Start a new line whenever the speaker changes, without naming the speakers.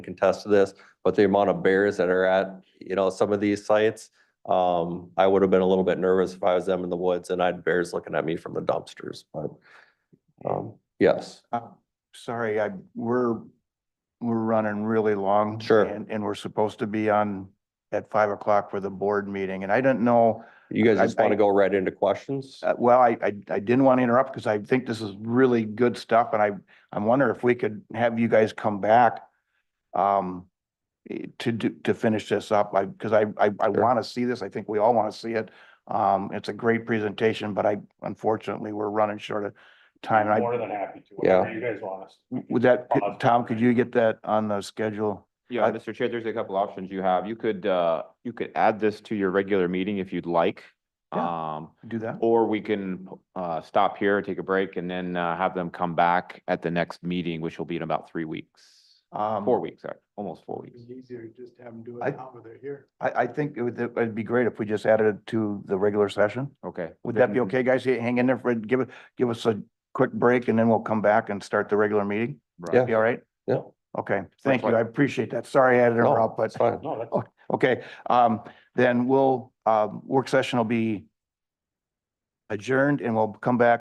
can attest to this, but the amount of bears that are at, you know, some of these sites, um, I would have been a little bit nervous if I was them in the woods and I had bears looking at me from the dumpsters, but, um, yes,
Uh, Sorry, I, we're, we're running really long.
Sure.
And, and we're supposed to be on at five o'clock for the board meeting, and I didn't know,
you guys
I-
just want
I-
to go right into questions?
uh, well, I, I, I didn't want to interrupt because I think this is really good stuff, and I, I wonder if we could have you guys come back um, eh, to do, to finish this up, I, because I, I, I
Sure.
want to see this, I think we all want to see it. Um, it's a great presentation, but I, unfortunately, we're running short of time, and I
More than happy to,
Yeah.
whatever you guys want us.
W- Would that, could-
Pause.
Tom, could you get that on the schedule?
Yeah,
I-
Mr. Chair, there's a couple options you have. You could, uh, you could add this to your regular meeting if you'd like. Um,
Do that?
or we can, uh, stop here, take a break and then, uh, have them come back at the next meeting, which will be in about three weeks.
Um,
Four weeks, sorry, almost four weeks.
easier to just have them do
it I-
now they're here.
I, I think it would, it'd be great if we just added it to the regular session.
Okay.
Would that be okay, guys? Hey, Hang in there for, give it, give us a quick break and then we'll come back and start the regular meeting.
Right.
Yeah.
Be all right?
Yeah.
Okay, thank you.
fine.
I appreciate that. Sorry I had to
No,
interrupt, but,
It's fine.
No, that's.
Oh, okay, um, then we'll, um, work session will be adjourned and we'll come back